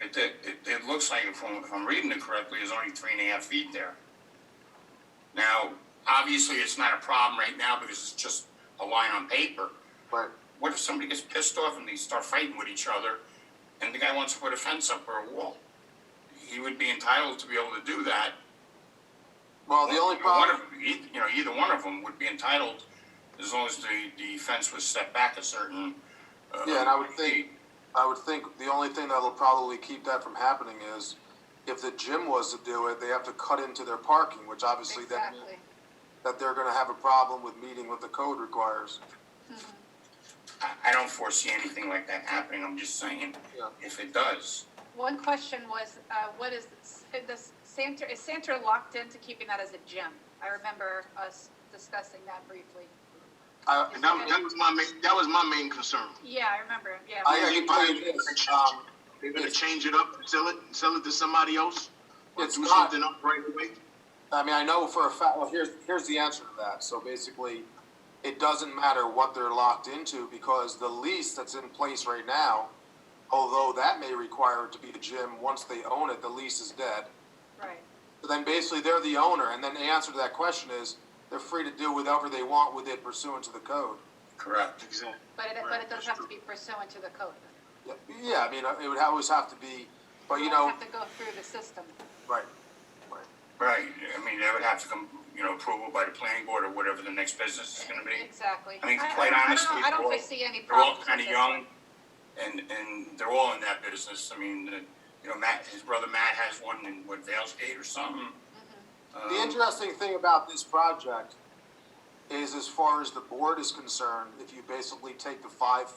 it, it, it, it looks like, if I'm, if I'm reading it correctly, there's only three and a half feet there. Now, obviously, it's not a problem right now because it's just a line on paper. Right. What if somebody gets pissed off and they start fighting with each other, and the guy wants to put a fence up or a wall? He would be entitled to be able to do that. Well, the only One problem, of, e- you know, either one of them would be entitled, as long as the, the fence was set back a certain. uh, Yeah, and I would think- I would think the only thing that'll probably keep that from happening is if the gym was to do it, they have to cut into their parking, which obviously that, Exactly. that they're gonna have a problem with meeting what the code requires. I, I don't foresee anything like that happening, I'm just saying, Yeah. if it does. One question was, uh, what is, this Santa, is Santa locked into keeping that as a gym? I remember us discussing that briefly. I, Is And it that, that gonna- was my main, that was my main concern. Yeah, I remember, yeah. I can tell you this, um, They're gonna Yes. change it up, sell it, sell it to somebody else, or It's do not- something up right away. I mean, I know for a fact, well, here's, here's the answer to that. So basically, it doesn't matter what they're locked into because the lease that's in place right now, although that may require it to be a gym, once they own it, the lease is dead. uh, Right, But then basically they're the owner, and then the answer to that question is they're free to do whatever they want with it pursuant to the code. Correct. Exactly. but it, but Right, it does that's have to true. be pursuant to the code. Yeah, Yeah, I mean, it would always have to be, but you It know, doesn't have to go through the system. right, right. Right, I mean, that would have to come, you know, approval by the planning board or whatever the next business is gonna be. Exactly. I mean, don't- quite don't- honestly, I don't we're all- foresee any They're all problems. kinda with it. young, and, and they're all in that business, I mean, the- you know, Matt, his brother Matt has one in, what, Vale's Gate or something. The Um, interesting thing about this project is, as far as the board is concerned, if you basically take the five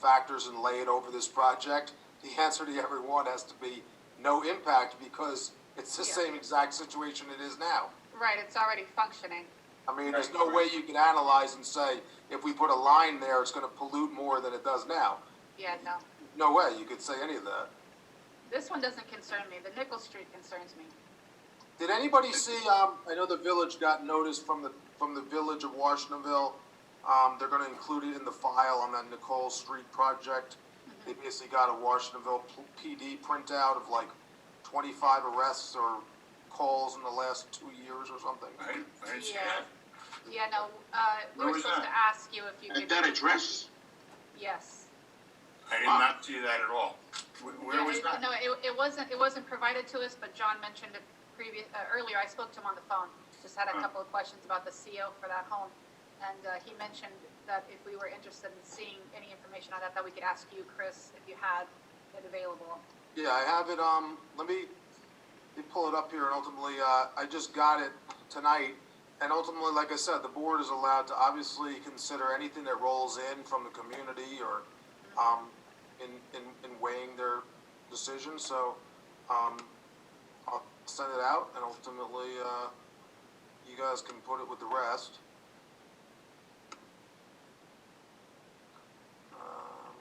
factors and lay it over this project, the answer to every one has to be no impact because it's the Yeah. same exact situation it is now. Right, it's already functioning. I mean, there's no way you can analyze and say, if we put a line there, it's gonna pollute more than it does now. Yeah, no. No way you could say any of that. This one doesn't concern me. The Nickel Street concerns me. Did anybody see, um, I know the village got notice from the, from the village of Washingtonville. Um, they're gonna include it in the file on that Nicole Street project. They basically got a Washingtonville P- PD printout of like twenty-five arrests or calls in the last two years or something. I, I didn't see Yeah. that. Yeah, no, uh, we Where were was supposed to that? ask you if you could. At that address, Yes. I did not see that at all. Wh- Where Yeah, was it- that? No, it, it wasn't, it wasn't provided to us, but John mentioned it previous, uh, earlier, I spoke to him on the phone. Just had a Huh. couple of questions about the CO for that home. And, uh, he mentioned that if we were interested in seeing any information on that, that we could ask you, Chris, if you had it available. Yeah, I have it, um, let me, let me pull it up here and ultimately, uh, I just got it tonight. And ultimately, like I said, the board is allowed to obviously consider anything that rolls in from the community or, um, in, in, in weighing their decision, so, um, I'll send it out and ultimately, uh, you guys can put it with the rest. Um,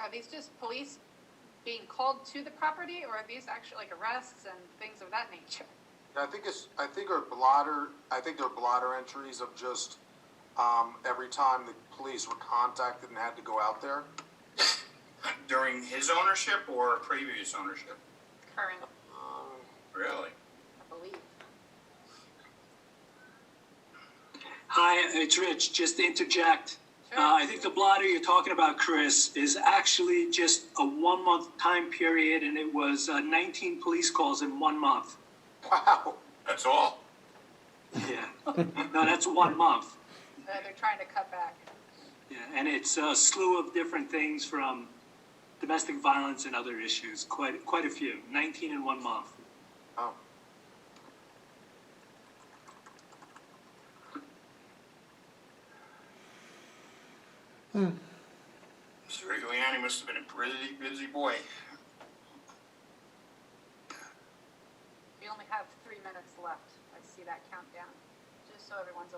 Are these just police being called to the property, or are these actually like arrests and things of that nature? Yeah, I think it's, I think our blotter, I think they're blotter entries of just, um, every time the police were contacted and had to go out there. Uh, During his ownership or previous ownership? Current, Um, Really? I believe. Hi, it's Rich. Just to interject. Sure. Uh, I think the blotter you're talking about, Chris, is actually just a one month time period, and it was uh, 19 police calls in one month. Wow, That's all? Yeah. no, that's one month. Uh, they're trying to cut back. Yeah. And it's a slew of different things from domestic violence and other issues. Quite, quite a few. 19 in one month. oh, Mr. Giuliani must have been a pretty busy boy. We only have three minutes left. I see that countdown, just so everyone's